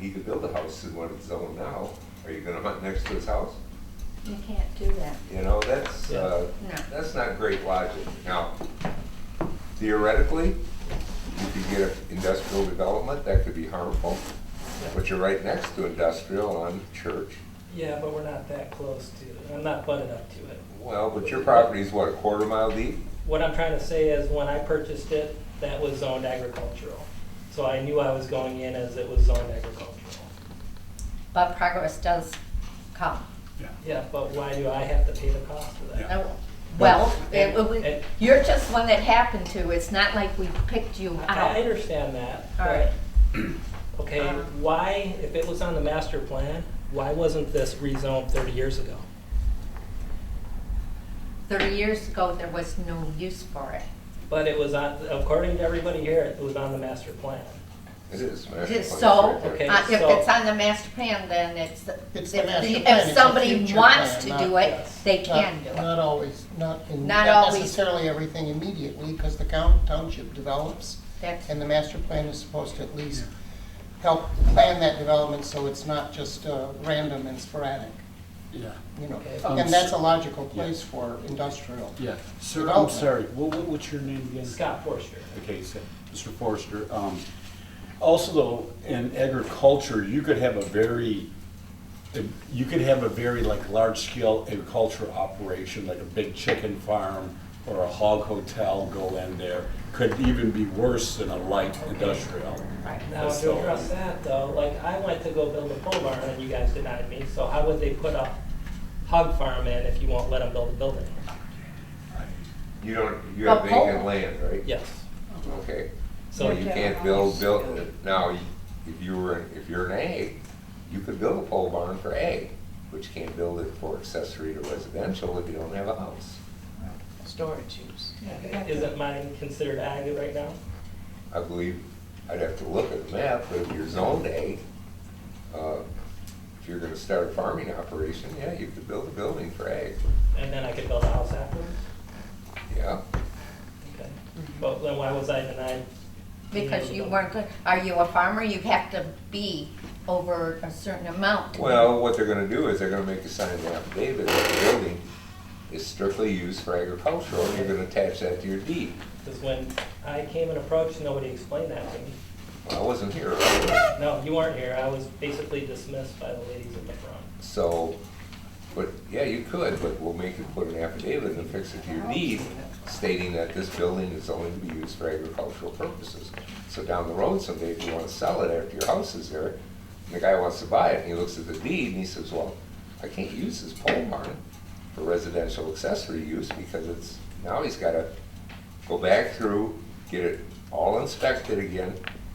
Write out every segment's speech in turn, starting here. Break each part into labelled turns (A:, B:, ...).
A: he could build a house in what it's zoned now. Are you gonna hunt next to his house?
B: You can't do that.
A: You know, that's, uh,
B: Yeah. No.
A: that's not great logic. Now, theoretically, you could get a industrial development, that could be harmful, but you're right next to industrial on Church.
C: Yeah, but we're not that close to it. I'm not butted up to it.
A: Well, but your property's what, a quarter mile deep?
C: What I'm trying to say is when I purchased it, that was zoned agricultural. So I knew I was going in as it was zoned agricultural.
B: But progress does come.
D: Yeah.
C: Yeah, but why do I have to pay the cost of that?
D: Yeah.
B: No, Well, it-
C: And-
B: we-
C: and-
B: you're just one that happened to. It's not like we picked you
C: I
B: out.
C: understand that.
B: All
C: but-
B: right.
C: Okay,
B: Um,
C: why, if it was on the master plan, why wasn't this rezoned thirty years ago?
B: Thirty years ago, there was no use for it.
C: But it was on, according to everybody here, it was on the master plan.
A: It is. man.
B: It is
A: It's
B: So,
A: right
B: uh,
A: there.
C: Okay,
B: if
C: so-
B: it's on the master plan, then it's,
E: It's
B: if
E: the master
B: the-
E: plan, it's
B: if
E: a
B: somebody
E: future
B: wants
E: plan,
B: to
E: not-
B: do it,
C: yes.
B: they
E: Not-
B: can do it.
E: Not always, not in,
B: Not
E: not
B: always.
E: necessarily everything immediately, because the count- township develops,
B: That's-
E: and the master plan is supposed to at least help plan that development, so it's not just uh, random and sporadic,
D: Yeah,
E: you know.
C: Okay.
D: Um,
E: And that's a logical place for industrial.
D: yeah. Sir, I'm
E: Development.
D: sorry, what, what- what's your name again?
C: Scott Forster.
D: Okay, so, Mr. Forrester, um, also though, in agriculture, you could have a very, you could have a very like large-scale agriculture operation, like a big chicken farm or a hog hotel go in there, could even be worse than a light industrial.
B: Right.
C: Now, to address that though, like I went to go build a pole barn and you guys denied me, so how would they put a hog farm in if you won't let them build a building?
A: You don't, you have
B: But Paul-
A: vacant land, right?
C: Yes.
A: Okay,
C: So
A: so
C: you
A: you can't build, build, now, you- if you were, if you're an ag, you could build a pole barn for ag, but you can't build it for accessory to residential if you don't have a house.
F: storage use.
C: Isn't mine considered ag right now?
A: I believe, I'd have to look at the map, but if you're zoned ag, uh, if you're gonna start a farming operation, yeah, you could build a building for ag,
C: And then I could build a house afterwards?
A: yeah.
C: Okay. But then why was I denied? being able
B: Because
C: to
B: you
C: build?
B: weren't, good. are you a farmer? You have to be over a certain amount.
A: Well, what they're gonna do is they're gonna make you sign an affidavit that the building is strictly used for agricultural, and you're gonna attach that to your deed.
C: Because when I came and approached, nobody explained that to me.
A: Well, I wasn't here,
C: No, you weren't here. I was basically dismissed by the ladies in the front.
A: so, but, yeah, you could, but we'll make you put an affidavit and fix it to your deed stating that this building is only to be used for agricultural purposes. So down the road someday, if you wanna sell it after your house is there, and the guy wants to buy it, and he looks at the deed, and he says, well, I can't use this pole barn for residential accessory use because it's, now he's gotta go back through, get it all inspected again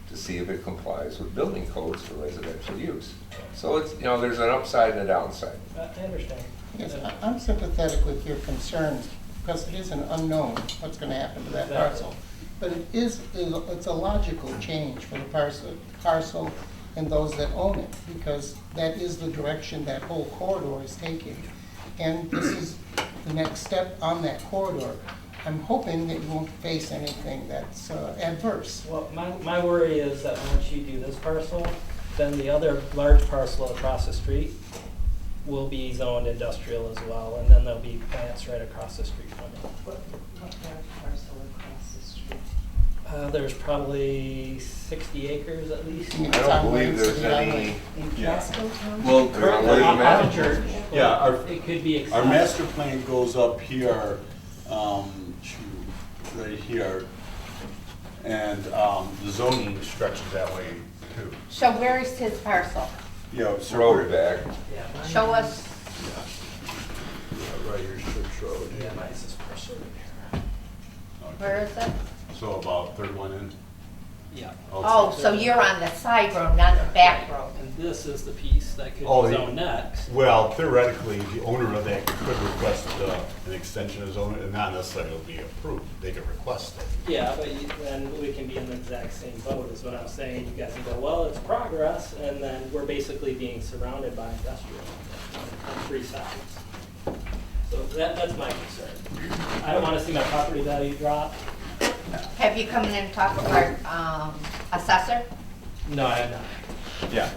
A: to see if it complies with building codes for residential use. So it's, you know, there's an upside and a downside.
C: I I understand.
E: Yes, I- I'm sympathetic with your concerns, because it is an unknown what's gonna happen to that parcel. But it is, it's a logical change for the parcel, parcel and those that own it, because that is the direction that whole corridor is taking. And this is the next step on that corridor. I'm hoping that you won't face anything that's uh, adverse.
C: Well, my, my worry is that once you do this parcel, then the other large parcel across the street will be zoned industrial as well, and then there'll be plants right across the street from it.
F: What, what large parcel across the street?
C: Uh, there's probably sixty acres at least.
E: Yeah.
A: I don't believe there's any,
F: In
D: Yeah.
F: Casco Town?
D: Well,
A: currently- Wait a minute.
C: Off of Church.
D: Yeah, our-
C: It could be.
D: Our
C: accessed.
D: master plan goes up here, um, to, right here, and, um, the zoning stretches that way too.
B: So where is his parcel?
D: You know,
A: it's
D: so
A: road
D: we're-
A: back,
C: Yeah, mine-
B: Show us,
D: Right here, Church Road.
C: Yeah, mine's this parcel right here.
B: where is it?
D: So about third one in.
C: Yeah.
B: Oh, so you're on the side road, not the back road.
C: And this is the piece that could be
D: Oh, yeah.
C: zoned next.
D: Well, theoretically, the owner of that could request uh, an extension of zoning, and not necessarily it'll be approved, they could request it.
C: Yeah, but you- then we can be in the exact same boat is what I'm saying. You guys can go, well, it's progress, and then we're basically being surrounded by industrial on three sides. So that, that's my concern. I don't want to see my property value drop.
B: Have you come in and talked to our um, assessor?
C: No, I have not.
D: Yeah.